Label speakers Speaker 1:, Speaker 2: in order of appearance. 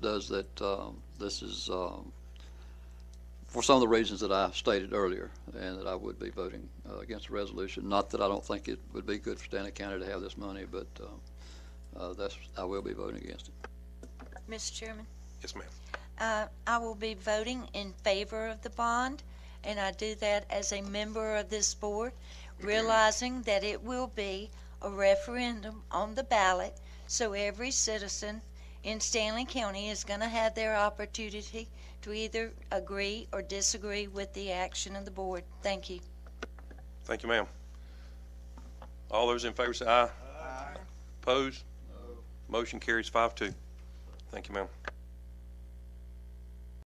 Speaker 1: does that, um, this is, um, for some of the reasons that I stated earlier, and that I would be voting uh, against the resolution. Not that I don't think it would be good for Stanley County to have this money, but um, uh, that's, I will be voting against it.
Speaker 2: Mr. Chairman,
Speaker 3: Yes, ma'am.
Speaker 2: uh, I will be voting in favor of the bond, and I do that as a member of this board, realizing that it will be a referendum on the ballot, so every citizen in Stanley County is going to have their opportunity to either agree or disagree with the action of the board. Thank you.
Speaker 3: Thank you, ma'am. All those in favor say aye. Aye. Opposed? Motion carries five two. Thank you, ma'am.